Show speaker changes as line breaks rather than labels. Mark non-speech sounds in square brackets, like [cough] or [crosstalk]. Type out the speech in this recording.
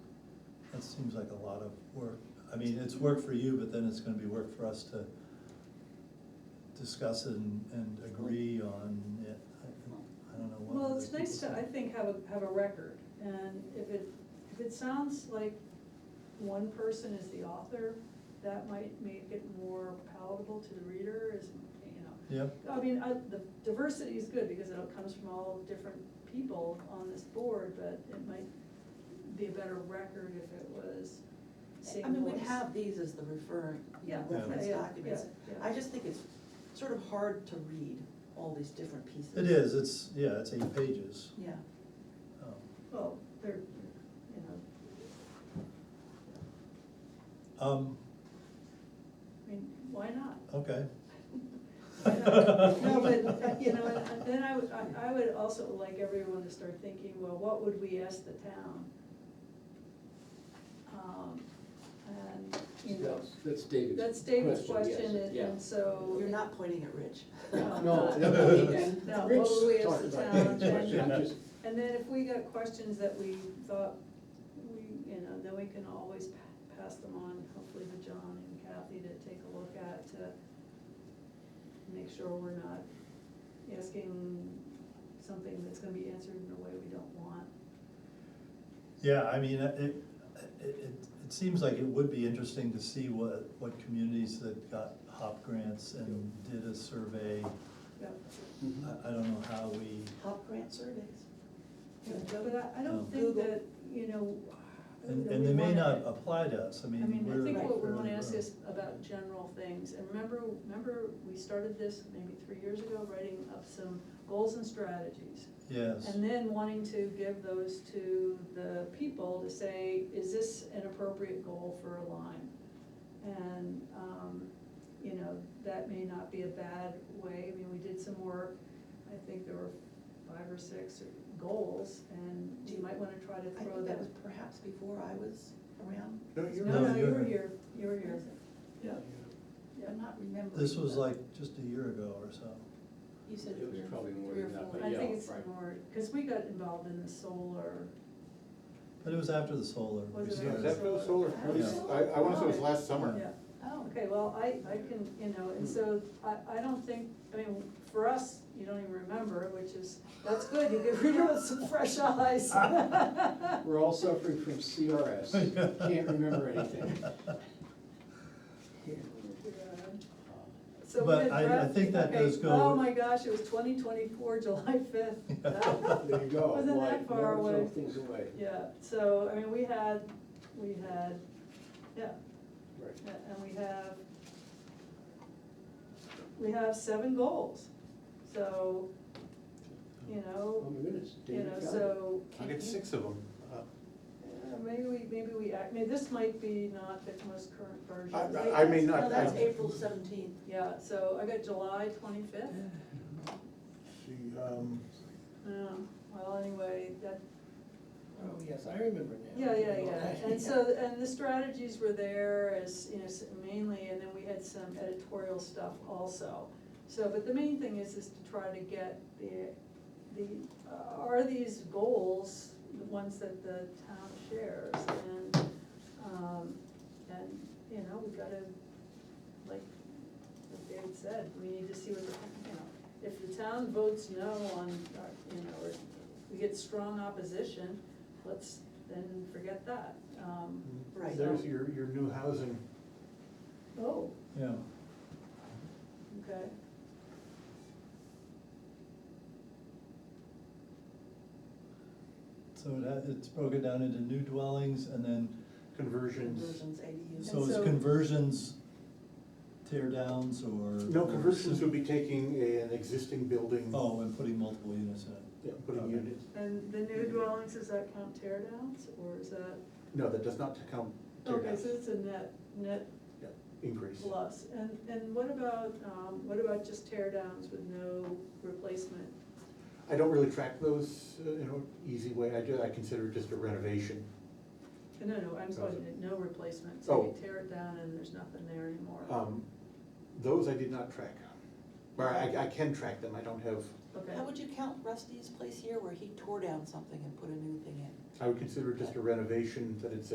it seems like a lot of work. I mean, it's work for you, but then it's gonna be work for us to discuss and, and agree on it. I I don't know what.
Well,
other
it's nice to,
people
I
say.
think, have a, have a record, and if it, if it sounds like one person is the author, that might make it more palatable to the reader, is, you know.
Yep,
I mean, I, the diversity is good because it comes from all different people on this board, but it might be a better record if it was same
I mean, we
voice.
have these as the referring, you know,
Yeah,
reference
yeah, yeah,
documents.
yeah, yeah.
I just think it's sort of hard to read all these different pieces.
it is, it's, yeah, it's eight pages.
Yeah,
Um,
Well, they're, you know,
Um,
I mean, why not?
okay.
[laughs]
No, but, uh, you know, and then I would, I- I would also like everyone to start thinking, well, what would we ask the town? Um, And, you know,
Yes, That's David's.
that's David's
yes,
question, and-
yeah.
and so.
you're not pointing at Rich. [laughs]
[laughs] No,
No.
no,
Rich
what would we ask
talked
the
about
town,
that.
then-
I'm just-
And then if we got questions that we thought, we, you know, then we can always pa- pass them on, hopefully to John and Kathy to take a look at, to make sure we're not asking something that's gonna be answered in a way we don't want.
Yeah, I mean, it, it, it, it seems like it would be interesting to see what, what communities that got HOP grants and did a survey.
Yep.
I, I don't know how we,
Top grant surveys.
But I, I don't think
Google.
that, you know. I don't
and,
know
and
we
they may
wanna-
not apply to us, I
I
mean,
mean,
we're.
I think what we wanna
fairly
ask
rural.
is about general things, and remember, remember, we started this maybe three years ago, writing up some goals and strategies.
Yes,
And then wanting to give those to the people to say, is this an appropriate goal for a line? And, um, you know, that may not be a bad way, I mean, we did some work, I think there were five or six goals, and you might wanna try to
I
throw
think that was
that.
perhaps before I was around.
No, you're
No, no,
right.
you were here, you were here, yeah, yeah.
I'm not remembering.
this was
but
like just a year ago or so.
You said
It was
three or-
probably more
three or
than that,
four.
but
I
yeah.
think it's
right.
more, because we got involved in the solar,
But it was after the solar.
Was
we
it
started.
after
That
[laughs]
solar?
was solar, pretty- I, I wanna say it was
Yeah.
last summer.
yeah.
Oh,
Okay, well, I, I can, you know, and so I, I don't think, I mean, for us, you don't even remember, which is, that's good, you get rid of [laughs] some fresh eyes.
Ah.
[laughs]
We're all suffering
[laughs]
from CRS, can't remember anything.
So we
But
had
I- I
draft-
think that
okay,
does go-
Oh my gosh, it was twenty twenty-four, July
[laughs]
fifth.
There you go.
[laughs] Wasn't
Why?
that far
Never
away?
throw things away.
Yeah, so, I mean, we had, we had, yeah,
Right.
A- Uh, And we have, we have seven goals, so, you
Oh
know,
my goodness,
you
David
know,
got it.
so,
I get six of them.
uh, maybe we, maybe we, act- maybe this might be not the most current version.
I-
Right?
I may
No,
not-
that's
I-
April seventeenth.
Yeah, so I got July twenty-fifth,
She, um,
yeah, Um, well, anyway, that,
Oh, yes, I remember now.
Yeah, yeah,
[laughs]
yeah, and so, and the strategies were there as, you know, s- mainly, and then we had some editorial stuff also. So, but the main thing is, is to try to get the, the, uh, are these goals, the ones that the town shares? And, um, and, you know, we gotta, like, like David said, we need to see what the, you know, if the town votes no on, uh, you know, or we get strong opposition, let's then forget that. Um,
Right.
There's your, your new housing.
Oh,
[laughs] Yeah,
okay.
so it, had- it's broken down into new dwellings and then,
Conversions.
Conversions, ADUs.
so it's
so-
conversions, tear downs or?
No,
or
conversions
sim-
would be taking a- an existing building.
Oh, and putting multiple units in it.
Yeah, putting
Okay.
units.
And the new dwellings, does that count tear downs, or is that?
No, that does not count tear
Okay, so
downs.
it's a net, net
Yeah, Increase.
plus, and, and what about, um, what about just tear downs with no replacement?
I don't really track those uh, in an easy way. I do, I consider it just a renovation.
Uh, No, no, I'm sorry, no replacement,
Oh.
so you tear it down and there's nothing there anymore.
Um, Those I did not track. Or I, I can track them. I don't have,
Okay,
How would you count Rusty's place here where he tore down something and put a new thing in?
I would consider it just a renovation that it's